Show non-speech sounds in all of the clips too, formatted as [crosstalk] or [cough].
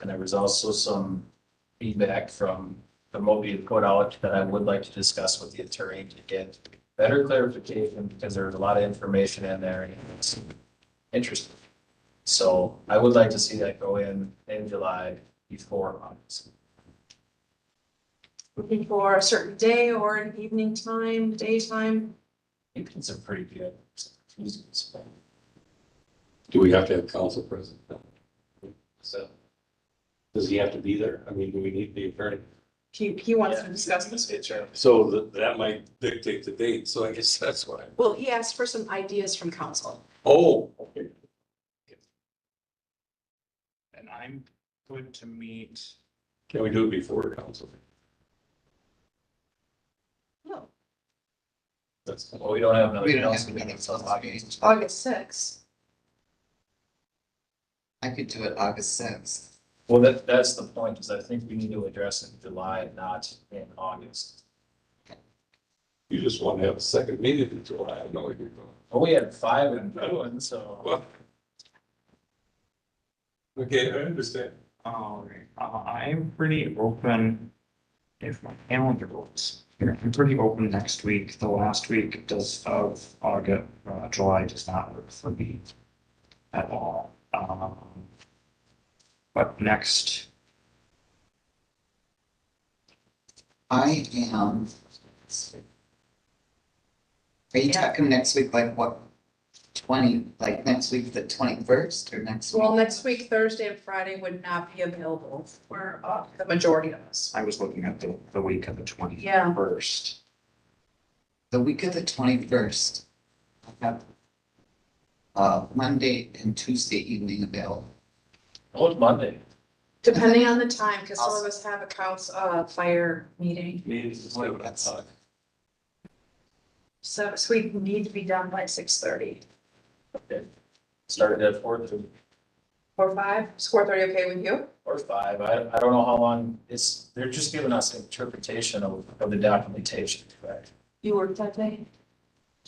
And there was also some feedback from the Mobi put out that I would like to discuss with the attorney to get better clarification because there was a lot of information in there and it's interesting. So I would like to see that go in in July before August. looking for a certain day or an evening time, daytime. Evenings are pretty good. Tuesdays, but- Do we have to have council present? So Does he have to be there? I mean, do we need the attorney? He, he wants to discuss this. So that, that might dictate the date, so I guess [laughs] that's why. Well, he asked for some ideas from council. Oh, okay. And I'm going to meet, Can we do it before council? No. That's, Well, we don't have another. We don't have council a meeting until until August. August sixth. I could do it August sixth. Well, that, that's the point, is I think we need to address it in July, not in August. you just want to have a second meeting in July. I know you're going. But we had five in Bruin, so Well. Okay, I understand. um, uh, I'm pretty open. If my calendar works, I'm pretty open next week. The last week does of August, uh, July does not work for me. At all, um. But next, I am. Are you talking next week, like what? Twenty, like next week, the twenty-first or next? week? Well, next week, Thursday and Friday would not be available for uh, the majority of us. I was looking at the, the week of the twenty Yeah. first. The week of the twenty-first. I have. Uh, Monday and Tuesday evening available. old Monday. Depending on the time, because some of us have a council, uh, fire meeting. That's- So, so we need to be done by six thirty Started at four through, or five. Is four thirty okay with you? or five, I, I don't know how long, it's, they're just giving us interpretation of, of the documentation, correct? You work that day?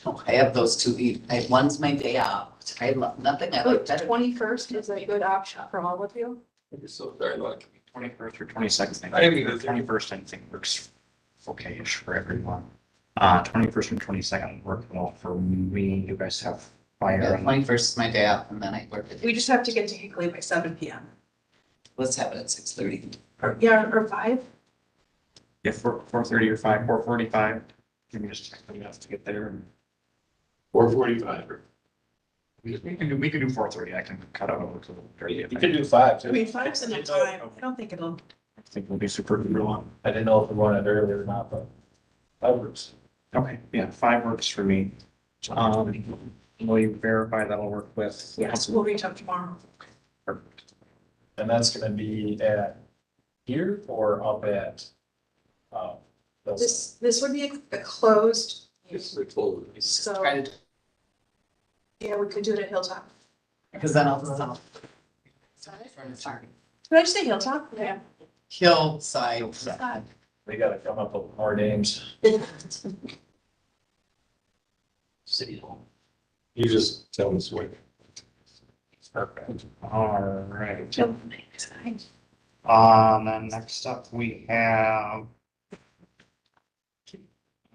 No, I have those two eve, I, one's my day out. I love, nothing I like better. Oh, Twenty-first is a good option for all of you. You're so very lucky. Twenty first or twenty second. I agree with you. Twenty first, I think works okay-ish for everyone. Uh, twenty first and twenty second work well for me. You guys have fire Yeah, on twenty-first is my day out and then I work. at- We just have to get to Hickley by seven P M. Let's have it at six thirty. Yeah, or five. Yeah, four, four thirty or five, four forty-five, give me just a minute to get there. and- Four forty-five. We we can do, we can do four thirty, I can cut out over to the thirty. You if could I do five I too. mean, five's enough time. I don't think it'll. think we'll be super, super long. I didn't know if we wanted earlier or not, but five groups. Okay, yeah, five works for me. Um, will you verify that'll work with? Yes, we'll reach out tomorrow. Perfect. And that's gonna be at here or up at, uh, those- This, this would be a a closed. It's the close. So, Try to, yeah, we could do it at Hilltop. because then I'll stop. Did I just say Hilltop? Yeah. Kill side. they gotta come up with more names. City Hall. You just tell us what. Perfect. All right, Yep. um, then next up we have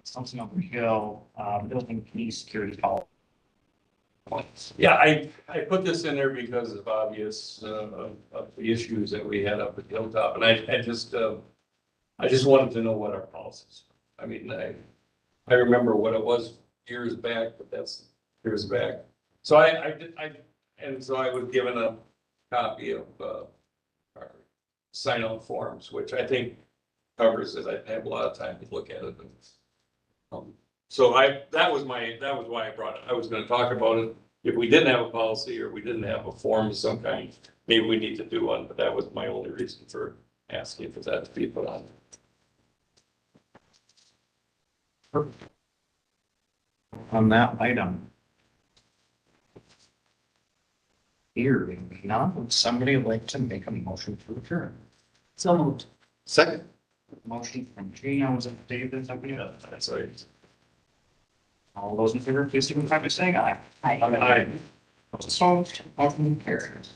something over hill, uh, building key security policy. Yeah, I, I put this in there because of obvious, uh, of- of the issues that we had up at Hilltop, and I, I just, uh, I just wanted to know what our policies. were. I mean, I, I remember what it was years back, but that's years back. So I, I, did- I, and so I was given a copy of, uh, our sign-on forms, which I think covers it. I have a lot of time to look at it. Um, So I, that was my, that was why I brought it. I was gonna talk about it if we didn't have a policy or we didn't have a form of some kind, maybe we need to do one, but that was my only reason for asking for that to be put on. on that item. Hearing none, would somebody like to make a motion to adjourn? So moved. Second. Motion from Gina, was it David, somebody Yeah, else? that's right. All those in favor, please signify by saying aye. Hi. Aye. Opposed, motion carries.